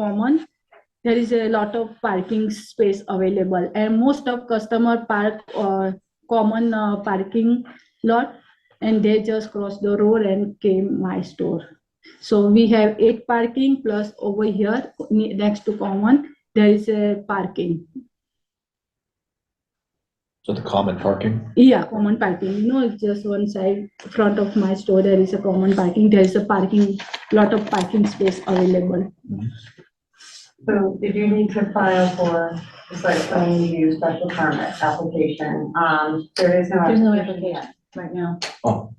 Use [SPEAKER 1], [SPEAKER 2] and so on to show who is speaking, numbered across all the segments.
[SPEAKER 1] common. There is a lot of parking space available and most of customer park or common uh, parking lot and they just crossed the road and came my store. So we have eight parking plus over here ne- next to common, there is a parking.
[SPEAKER 2] So the common parking?
[SPEAKER 1] Yeah, common parking. You know, it's just one side front of my store. There is a common parking. There is a parking, lot of parking space available.
[SPEAKER 3] So if you need to file for the site plan review special permit application, um, there is no.
[SPEAKER 4] There's no
[SPEAKER 3] yet.
[SPEAKER 4] application right now.
[SPEAKER 2] Oh.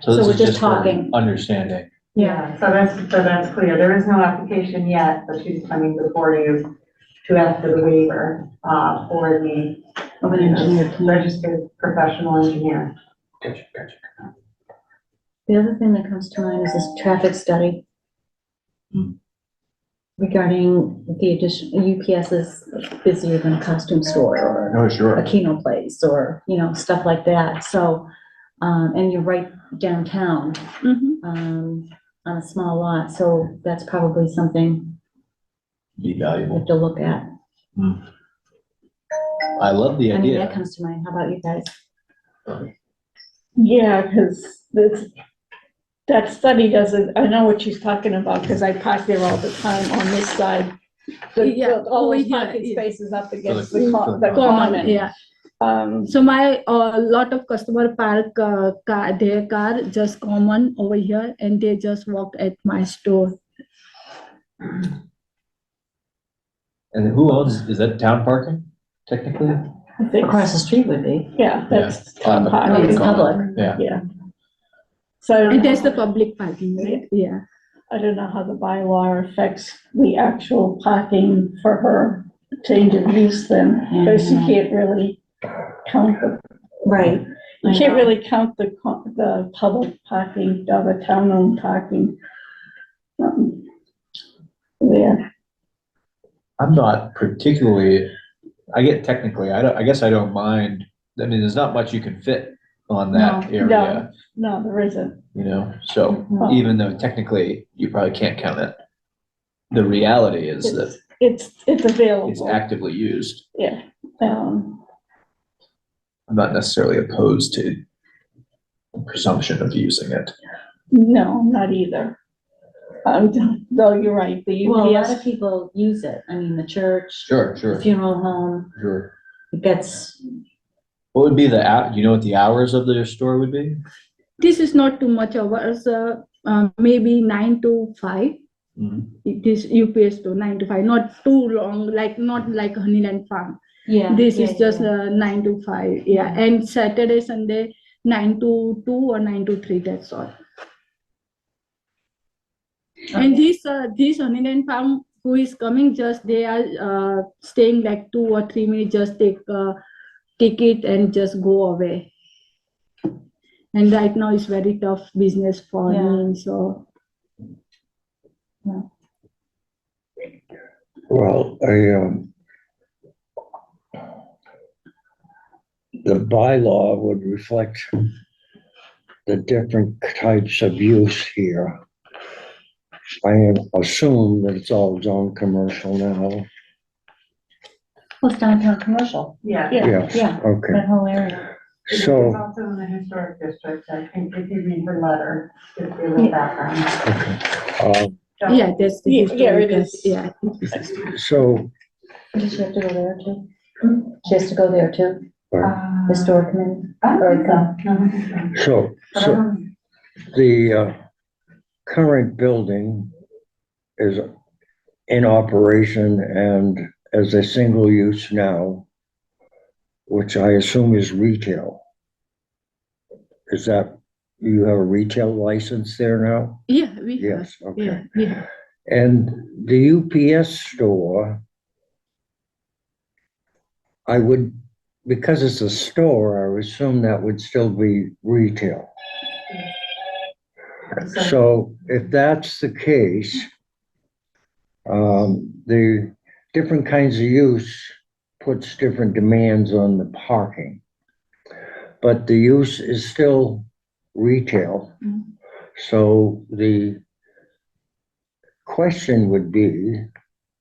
[SPEAKER 4] So
[SPEAKER 2] this
[SPEAKER 4] we're
[SPEAKER 2] is
[SPEAKER 4] just
[SPEAKER 2] for
[SPEAKER 4] talking.
[SPEAKER 2] Understanding.
[SPEAKER 3] Yeah, so that's, so that's clear. There is no application yet, but she's coming before you to ask for the waiver, uh, for the
[SPEAKER 4] Of an engineer.
[SPEAKER 3] registered professional engineer.
[SPEAKER 2] Gotcha, gotcha.
[SPEAKER 4] The other thing that comes to mind is this traffic study
[SPEAKER 2] Hmm.
[SPEAKER 4] regarding the addition, UPS is busier than a costume store or
[SPEAKER 2] No,
[SPEAKER 4] a
[SPEAKER 2] sure.
[SPEAKER 4] Keno place or, you know, stuff like that. So, um, and you're right downtown,
[SPEAKER 1] Mhm.
[SPEAKER 4] um, on a small lot, so that's probably something
[SPEAKER 2] Be
[SPEAKER 4] we
[SPEAKER 2] valuable.
[SPEAKER 4] have to look at.
[SPEAKER 2] I love the
[SPEAKER 4] I mean, that
[SPEAKER 2] idea.
[SPEAKER 4] comes to mind. How about you guys?
[SPEAKER 5] Yeah, because this, that study doesn't, I know what she's talking about, because I park there all the time on this side. The-
[SPEAKER 1] Yeah,
[SPEAKER 5] the- All those
[SPEAKER 1] over here,
[SPEAKER 5] parking
[SPEAKER 1] yeah.
[SPEAKER 5] spaces up against
[SPEAKER 2] the-
[SPEAKER 5] the co- the
[SPEAKER 2] for the
[SPEAKER 1] Common,
[SPEAKER 5] common.
[SPEAKER 1] yeah.
[SPEAKER 5] Um,
[SPEAKER 1] So my, uh, lot of customer park, uh, car, their car just common over here and they just walk at my store.
[SPEAKER 2] And who owns, is that town parking technically?
[SPEAKER 5] I think-
[SPEAKER 4] Across the street would be.
[SPEAKER 5] Yeah, that's
[SPEAKER 2] Yeah, on
[SPEAKER 5] town
[SPEAKER 2] the-
[SPEAKER 4] Oh,
[SPEAKER 5] parking,
[SPEAKER 4] it's public.
[SPEAKER 2] Yeah.
[SPEAKER 5] yeah. So I
[SPEAKER 1] And there's
[SPEAKER 5] don't
[SPEAKER 1] the
[SPEAKER 5] know,
[SPEAKER 1] public parking, right? Yeah.
[SPEAKER 5] I don't know how the bylaw affects the actual parking for her change of use then, because you
[SPEAKER 4] Yeah.
[SPEAKER 5] can't really count the
[SPEAKER 4] Right.
[SPEAKER 5] You can't really count the, co- the public parking, or the town-owned parking. um, There,
[SPEAKER 2] I'm not particularly, I get technically, I don't, I guess I don't mind. I mean, there's not much you can fit on that area,
[SPEAKER 5] no. no, there isn't.
[SPEAKER 2] you know, so
[SPEAKER 5] No.
[SPEAKER 2] even though technically you probably can't count it. The reality is that
[SPEAKER 5] It's, it's it's
[SPEAKER 2] it's
[SPEAKER 5] available,
[SPEAKER 2] actively used.
[SPEAKER 5] yeah. Um,
[SPEAKER 2] I'm not necessarily opposed to the presumption of using it.
[SPEAKER 5] no, not either. Um, though you're right, the
[SPEAKER 4] Well, a lot of
[SPEAKER 5] UPS,
[SPEAKER 4] people use it. I mean, the church,
[SPEAKER 2] Sure,
[SPEAKER 4] the
[SPEAKER 2] sure,
[SPEAKER 4] funeral home,
[SPEAKER 2] sure.
[SPEAKER 4] it gets,
[SPEAKER 2] What would be the, hou- you know what the hours of the store would be?
[SPEAKER 1] This is not too much hours, uh, uh, maybe nine to five.
[SPEAKER 2] Mm-hmm.
[SPEAKER 1] This UPS store, nine to five, not too long, like, not like Honeyland Farm.
[SPEAKER 4] yeah.
[SPEAKER 1] This
[SPEAKER 4] yeah,
[SPEAKER 1] is just
[SPEAKER 4] yeah.
[SPEAKER 1] uh, nine to five, yeah, and Saturday, Sunday, nine to two or nine to three, that's all. And
[SPEAKER 4] Okay.
[SPEAKER 1] this, uh, this Honeyland Farm, who is coming, just they are, uh, staying like two or three minutes, just take, uh, ticket and just go away. And right now it's very tough business for
[SPEAKER 4] Yeah.
[SPEAKER 1] me, so,
[SPEAKER 6] Well, I, um, the bylaw would reflect the different types of use here. I assume that it's all zone commercial now.
[SPEAKER 4] Well, it's downtown commercial,
[SPEAKER 3] Yeah.
[SPEAKER 5] Yeah.
[SPEAKER 6] Yes,
[SPEAKER 4] yeah,
[SPEAKER 6] okay.
[SPEAKER 4] that whole area.
[SPEAKER 3] It's
[SPEAKER 6] So,
[SPEAKER 3] also in the historic district, I think if you read her letter, it's really background.
[SPEAKER 6] um,
[SPEAKER 1] yeah, that's. the
[SPEAKER 5] Yeah,
[SPEAKER 1] history,
[SPEAKER 5] yeah, it
[SPEAKER 1] that's-
[SPEAKER 5] is.
[SPEAKER 1] Yeah,
[SPEAKER 6] so,
[SPEAKER 4] Does she have to go there too? She has to go there too,
[SPEAKER 6] uh,
[SPEAKER 4] the store committee?
[SPEAKER 3] Uh, I don't think so.
[SPEAKER 4] uh,
[SPEAKER 3] No, I think so.
[SPEAKER 6] so,
[SPEAKER 3] But I
[SPEAKER 6] so
[SPEAKER 3] don't-
[SPEAKER 6] the, uh, current building is in operation and as a single use now, which I assume is retail. Is that, you have a retail license there now?
[SPEAKER 1] yeah, we have,
[SPEAKER 6] Yes,
[SPEAKER 1] yeah,
[SPEAKER 6] okay.
[SPEAKER 1] we have.
[SPEAKER 6] And the UPS store, I would, because it's a store, I would assume that would still be retail. So if that's the case, um, the different kinds of use puts different demands on the parking. But the use is still retail.
[SPEAKER 1] Mm.
[SPEAKER 6] So the question would be,